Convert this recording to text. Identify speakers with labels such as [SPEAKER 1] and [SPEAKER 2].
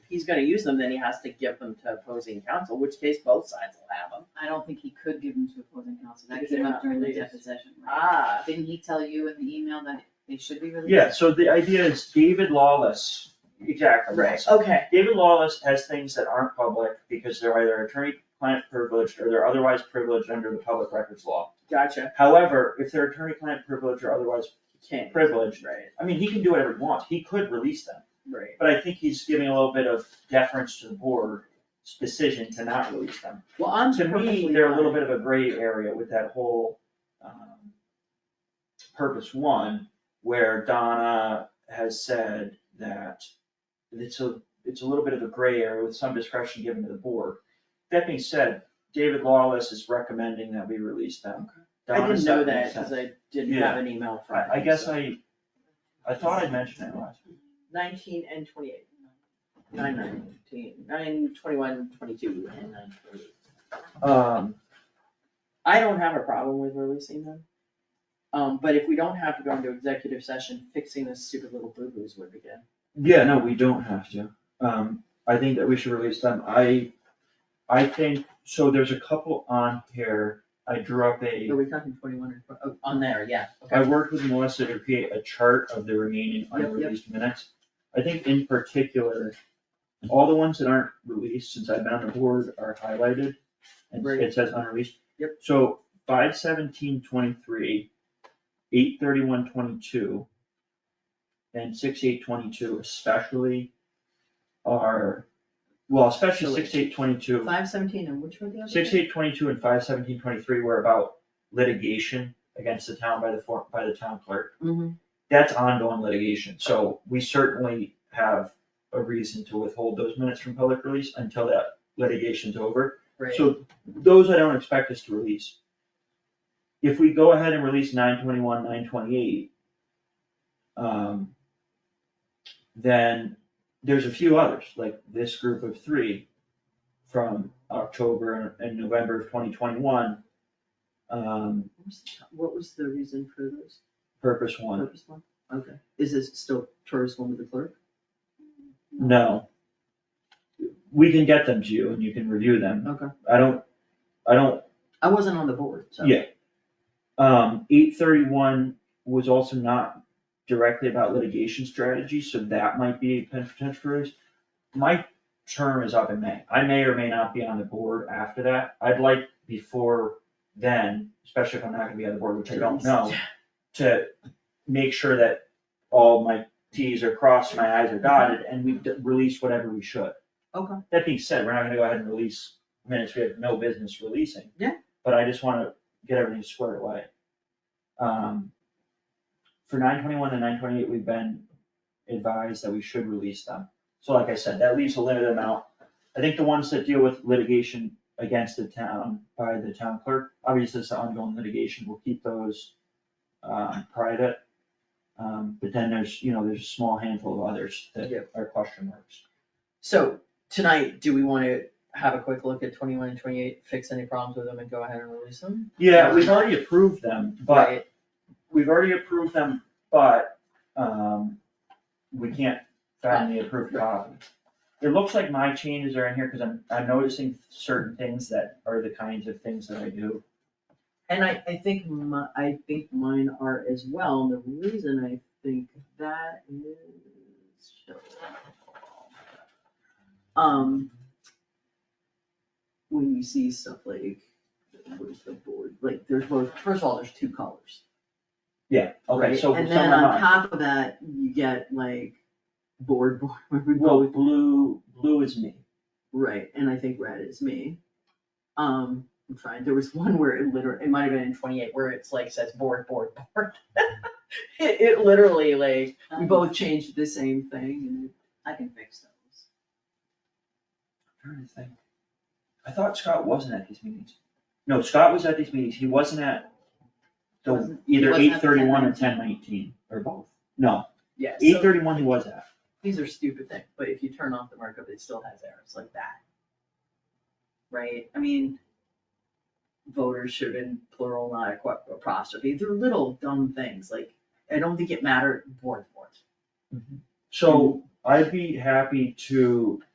[SPEAKER 1] he's gonna use them, then he has to give them to opposing counsel, which case both sides will have them.
[SPEAKER 2] I don't think he could give them to opposing counsel, that
[SPEAKER 1] Because they're
[SPEAKER 2] came up
[SPEAKER 1] not
[SPEAKER 2] during the
[SPEAKER 1] released.
[SPEAKER 2] deposition, right?
[SPEAKER 1] Ah,
[SPEAKER 2] Didn't he tell you in the email that they should be released?
[SPEAKER 3] Yeah, so the idea is David Lawless, exactly.
[SPEAKER 1] right,
[SPEAKER 3] Lawless.
[SPEAKER 1] okay,
[SPEAKER 3] David Lawless has things that aren't public because they're either attorney-client privileged or they're otherwise privileged under the public records law.
[SPEAKER 1] gotcha,
[SPEAKER 3] However, if they're attorney-client privileged or otherwise
[SPEAKER 1] can't,
[SPEAKER 3] privileged,
[SPEAKER 1] right,
[SPEAKER 3] I mean, he can do whatever he wants. He could release them.
[SPEAKER 1] right,
[SPEAKER 3] But I think he's giving a little bit of deference to the board's decision to not release them.
[SPEAKER 1] well, I'm
[SPEAKER 3] To
[SPEAKER 1] perfectly
[SPEAKER 3] me, they're a little
[SPEAKER 1] fine.
[SPEAKER 3] bit of a gray area with that whole, um, purpose one, where Donna has said that it's a, it's a little bit of a gray area with some discretion given to the board. That being said, David Lawless is recommending that we release them.
[SPEAKER 1] I
[SPEAKER 3] Donna's
[SPEAKER 1] didn't know
[SPEAKER 3] not gonna
[SPEAKER 1] that,
[SPEAKER 3] send-
[SPEAKER 1] cause I didn't have an email from him.
[SPEAKER 3] I, I guess
[SPEAKER 1] so.
[SPEAKER 3] I, I thought I mentioned it last week.
[SPEAKER 1] Nineteen and twenty-eight. Nine nineteen, nine twenty-one, twenty-two, and nine twenty-eight.
[SPEAKER 3] Um,
[SPEAKER 1] I don't have a problem with releasing them. Um, but if we don't have to go into executive session, fixing this stupid little boo-boos would be good.
[SPEAKER 3] Yeah, no, we don't have to. Um, I think that we should release them. I, I think, so there's a couple on here. I drew up a,
[SPEAKER 1] Are we talking twenty-one or, oh, on there, yeah,
[SPEAKER 3] I
[SPEAKER 1] okay.
[SPEAKER 3] worked with Melissa to create a chart of the remaining
[SPEAKER 1] yep.
[SPEAKER 3] unreleased minutes. I think in particular, all the ones that aren't released since I've been on the board are highlighted. And
[SPEAKER 1] Right.
[SPEAKER 3] it says unreleased.
[SPEAKER 1] Yep.
[SPEAKER 3] So five seventeen twenty-three, eight thirty-one twenty-two, and six eight twenty-two especially are, well, especially
[SPEAKER 1] Actually.
[SPEAKER 3] six eight twenty-two.
[SPEAKER 1] Five seventeen, and which were the other?
[SPEAKER 3] Six
[SPEAKER 1] two?
[SPEAKER 3] eight twenty-two and five seventeen twenty-three were about litigation against the town by the for, by the town clerk.
[SPEAKER 1] Mhm.
[SPEAKER 3] That's ongoing litigation, so we certainly have a reason to withhold those minutes from public release until that litigation's over.
[SPEAKER 1] Right.
[SPEAKER 3] So those I don't expect us to release. If we go ahead and release nine twenty-one, nine twenty-eight, um, then there's a few others, like this group of three from October and November of twenty twenty-one. Um,
[SPEAKER 1] What was the- What was the reason for this
[SPEAKER 3] purpose one,
[SPEAKER 1] purpose one? Okay, is this still tourist one with the clerk?
[SPEAKER 3] no. We can get them to you and you can review them.
[SPEAKER 1] Okay,
[SPEAKER 3] I don't, I don't
[SPEAKER 1] I wasn't on the board, so.
[SPEAKER 3] Yeah. Um, eight thirty-one was also not directly about litigation strategy, so that might be a potential risk. My term is up in May. I may or may not be on the board after that. I'd like before then, especially if I'm not gonna be on the board, which I don't know, to make sure that all my Ts are crossed, my Is are dotted, and we release whatever we should.
[SPEAKER 1] Mm-hmm. Okay.
[SPEAKER 3] That being said, we're not gonna go ahead and release minutes we have no business releasing.
[SPEAKER 1] Yeah.
[SPEAKER 3] But I just wanna get everything squared away. Um, for nine twenty-one and nine twenty-eight, we've been advised that we should release them. So like I said, that leaves a limited amount. I think the ones that deal with litigation against the town by the town clerk, obviously it's the ongoing litigation, we'll keep those um, private. Um, but then there's, you know, there's a small handful of others that
[SPEAKER 1] Yep.
[SPEAKER 3] are question marks.
[SPEAKER 1] So tonight, do we wanna have a quick look at twenty-one and twenty-eight, fix any problems with them and go ahead and release them?
[SPEAKER 3] Yeah, we've already approved them, but
[SPEAKER 1] Right,
[SPEAKER 3] we've already approved them, but, um, we can't find the approved copy. It looks like my changes are in here, cause I'm, I'm noticing certain things that are the kinds of things that I do.
[SPEAKER 1] And I, I think my, I think mine are as well, and the reason I think that is. Um. When you see stuff like, what is the board, like, there's both, first of all, there's two colors.
[SPEAKER 3] Yeah, okay,
[SPEAKER 1] right?
[SPEAKER 3] so
[SPEAKER 1] And
[SPEAKER 3] some
[SPEAKER 1] then
[SPEAKER 3] of
[SPEAKER 1] on
[SPEAKER 3] mine,
[SPEAKER 1] top of that, you get like board, board, where we
[SPEAKER 3] well, blue, blue is me.
[SPEAKER 1] Right, and I think red is me. Um, I'm trying, there was one where it literally, it might have been in twenty-eight, where it's like says board, board, board. It, it literally like,
[SPEAKER 2] Uh,
[SPEAKER 1] we both changed the same thing
[SPEAKER 2] I can fix those.
[SPEAKER 3] I'm trying to think. I thought Scott wasn't at these meetings. No, Scott was at these meetings, he wasn't at the,
[SPEAKER 2] Wasn't- he
[SPEAKER 3] either
[SPEAKER 2] wasn't
[SPEAKER 3] eight
[SPEAKER 2] at the
[SPEAKER 3] thirty-one or ten nineteen, or both. No,
[SPEAKER 1] and, yeah,
[SPEAKER 3] eight
[SPEAKER 1] so,
[SPEAKER 3] thirty-one he was at.
[SPEAKER 1] these are stupid things, but if you turn off the markup, it still has errors like that. Right, I mean, voters should have been plural, not aqua- apostrophe, they're little dumb things, like, I don't think it mattered, board, board.
[SPEAKER 3] So I'd be happy to